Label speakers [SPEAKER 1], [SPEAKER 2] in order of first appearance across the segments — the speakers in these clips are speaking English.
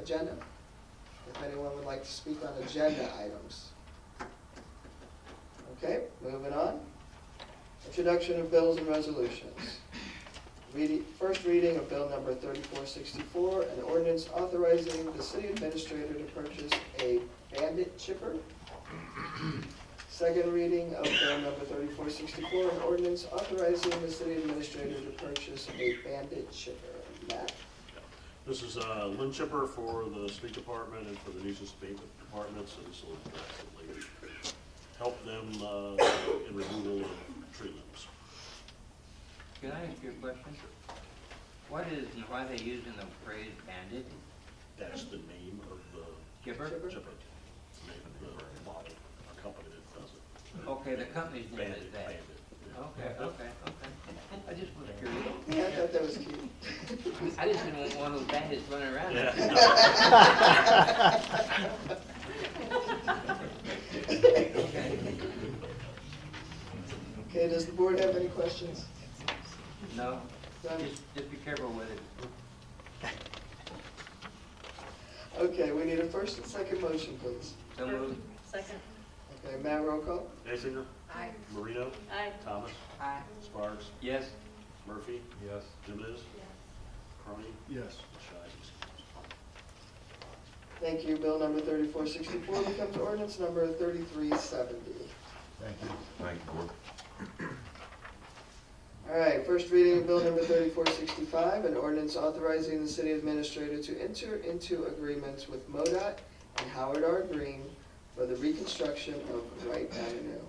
[SPEAKER 1] agenda? If anyone would like to speak on agenda items. Okay, moving on. Introduction of bills and resolutions. Reading, first reading of bill number thirty-four sixty-four, an ordinance authorizing the city administrator to purchase a bandit chipper. Second reading of bill number thirty-four sixty-four, an ordinance authorizing the city administrator to purchase a bandit chipper. Matt?
[SPEAKER 2] This is a lint chipper for the street department and for the nuisance abatement departments, and this will drastically help them uh, in removal of tree limbs.
[SPEAKER 3] Can I ask you a question? What is, why they using the phrase bandit
[SPEAKER 2] That's the name of the
[SPEAKER 3] chipper?
[SPEAKER 1] Chipper.
[SPEAKER 2] chipper, name of the body, or company that does it.
[SPEAKER 3] Okay, the company's name is
[SPEAKER 2] Bandit,
[SPEAKER 3] that.
[SPEAKER 2] bandit. yeah.
[SPEAKER 3] Okay, okay, okay. I just was curious.
[SPEAKER 1] Yeah, I thought that was cute.
[SPEAKER 3] I just didn't want one of those bandits running around.
[SPEAKER 2] Yeah.
[SPEAKER 1] Okay, does the board have any questions?
[SPEAKER 3] No,
[SPEAKER 1] None?
[SPEAKER 3] just, just be careful with it.
[SPEAKER 1] Okay, we need a first and second motion, please.
[SPEAKER 3] So moved.
[SPEAKER 4] Second.
[SPEAKER 1] Okay, Matt, roll call?
[SPEAKER 2] Basinger,
[SPEAKER 4] Aye.
[SPEAKER 2] Marino,
[SPEAKER 4] Aye.
[SPEAKER 2] Thomas,
[SPEAKER 3] Aye.
[SPEAKER 2] Sparks,
[SPEAKER 3] Yes,
[SPEAKER 2] Murphy,
[SPEAKER 5] Yes.
[SPEAKER 2] Jimenez, Carney,
[SPEAKER 5] Yes.
[SPEAKER 2] Shives.
[SPEAKER 1] Thank you. Bill number thirty-four sixty-four becomes ordinance number thirty-three seventy.
[SPEAKER 5] Thank you.
[SPEAKER 6] Thank you, Board.
[SPEAKER 1] All right, first reading of bill number thirty-four sixty-five, an ordinance authorizing the city administrator to enter into agreements with MoDOT and Howard R. Green for the reconstruction of Wright Avenue.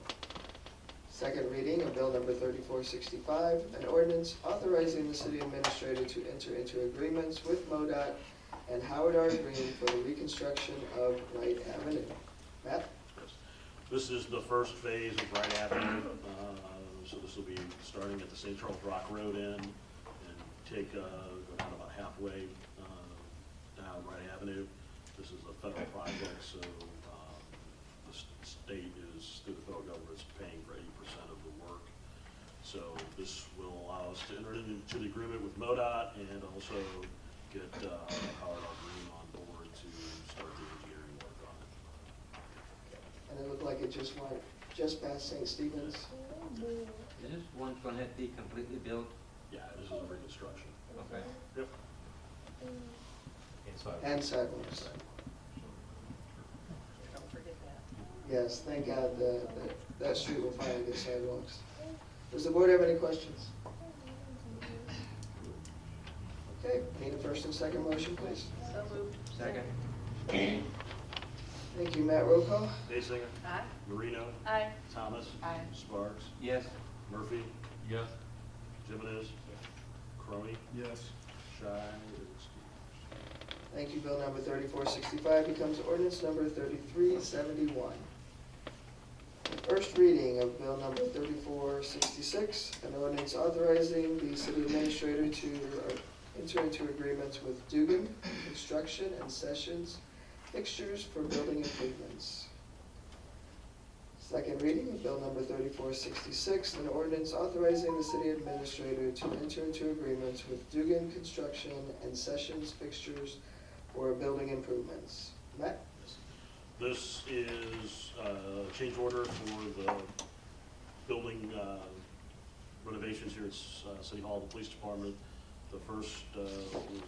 [SPEAKER 1] Second reading of bill number thirty-four sixty-five, an ordinance authorizing the city administrator to enter into agreements with MoDOT and Howard R. Green for the reconstruction of Wright Avenue. Matt?
[SPEAKER 2] This is the first phase of Wright Avenue, uh, so this will be starting at the St. Charles Rock Road end and take, uh, go down about halfway uh, down Wright Avenue. This is a federal project, so um, the s- state is, through the federal government, is paying for eighty percent of the work. So this will allow us to enter into the agreement with MoDOT and also get uh, Howard R. Green on board to start the engineering work on it.
[SPEAKER 1] And it looked like it just went just past St. Stephen's.
[SPEAKER 3] is this one's gonna have to be completely built?
[SPEAKER 2] Yeah, this is a reconstruction.
[SPEAKER 3] Okay.
[SPEAKER 2] Yep.
[SPEAKER 5] Inside.
[SPEAKER 1] And sidewalks.
[SPEAKER 4] Don't forget that.
[SPEAKER 1] Yes, thank God that, that, that street will finally get sidewalks. Does the board have any questions? Okay, need a first and second motion, please.
[SPEAKER 4] So moved.
[SPEAKER 3] Second?
[SPEAKER 1] Thank you, Matt Rocco.
[SPEAKER 2] Basinger,
[SPEAKER 4] Aye.
[SPEAKER 2] Marino,
[SPEAKER 4] Aye.
[SPEAKER 2] Thomas.
[SPEAKER 4] Aye.
[SPEAKER 2] Sparks,
[SPEAKER 3] Yes,
[SPEAKER 2] Murphy,
[SPEAKER 5] Yes.
[SPEAKER 2] Jimenez, Crony,
[SPEAKER 5] Yes.
[SPEAKER 2] Shai.
[SPEAKER 1] Thank you, bill number thirty-four sixty-five becomes ordinance number thirty-three seventy-one. First reading of bill number thirty-four sixty-six, an ordinance authorizing the city administrator to uh, enter into agreements with Dugan Construction and Sessions Fixtures for Building Improvements. Second reading of bill number thirty-four sixty-six, an ordinance authorizing the city administrator to enter into agreements with Dugan Construction and Sessions Fixtures for building improvements. Matt?
[SPEAKER 2] This is uh, change order for the building uh, renovations here at S- uh, City Hall, the police department. The first uh,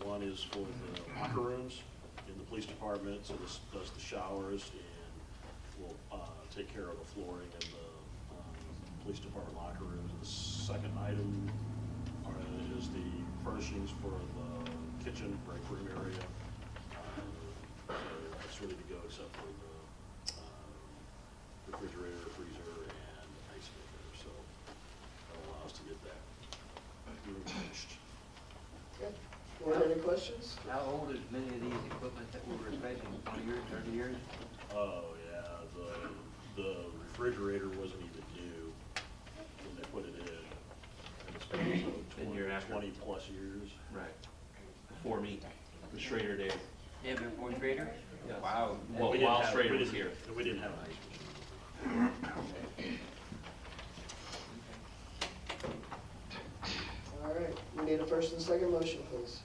[SPEAKER 2] one is for the locker rooms in the police department, so this does the showers and will uh, take care of the flooring in the um, police department locker rooms. The second item are- is the furnishings for the kitchen, break room area. Uh, That's ready to go except for the uh, refrigerator, freezer, and ice maker, so that'll allow us to get that room finished.
[SPEAKER 1] Board, any questions?
[SPEAKER 3] how old is many of these equipment that we're replacing, twenty years, thirty years?
[SPEAKER 2] Oh, yeah, the, the refrigerator wasn't even new when they put it in. It's been so
[SPEAKER 7] Been here after.
[SPEAKER 2] Twenty-plus years.
[SPEAKER 7] Right. Before me, the Schrader days.
[SPEAKER 3] Yeah, before Schrader?
[SPEAKER 7] Yes.
[SPEAKER 3] Wow. that-
[SPEAKER 7] Well,
[SPEAKER 2] We didn't
[SPEAKER 7] while
[SPEAKER 2] have-
[SPEAKER 7] Schrader
[SPEAKER 2] we
[SPEAKER 7] was
[SPEAKER 2] didn't-
[SPEAKER 7] here.
[SPEAKER 2] and We didn't have an ice machine.
[SPEAKER 1] All right, we need a first and second motion, please.